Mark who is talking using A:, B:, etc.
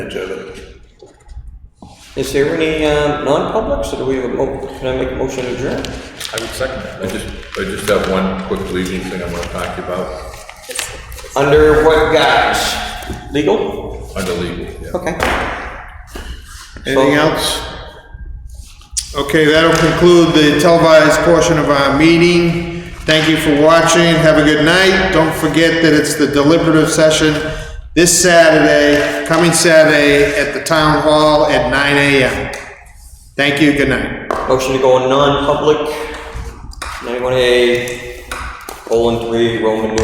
A: advantage of it.
B: Is there any uh, non-publics, or do we have a, mo- can I make a motion to adjourn?
C: I would second that. I just, I just have one quick legal thing I want to talk to you about,
B: Under what guise? Legal?
C: under legal, yeah.
B: Okay.
D: Anything else? Okay, that'll conclude the televised portion of our meeting. Thank you for watching, have a good night. Don't forget that it's the deliberative session this Saturday, coming Saturday, at the Town Hall at nine AM. Thank you, good night.
B: Motion to go on non-public. Anyone a colon three Roman numeral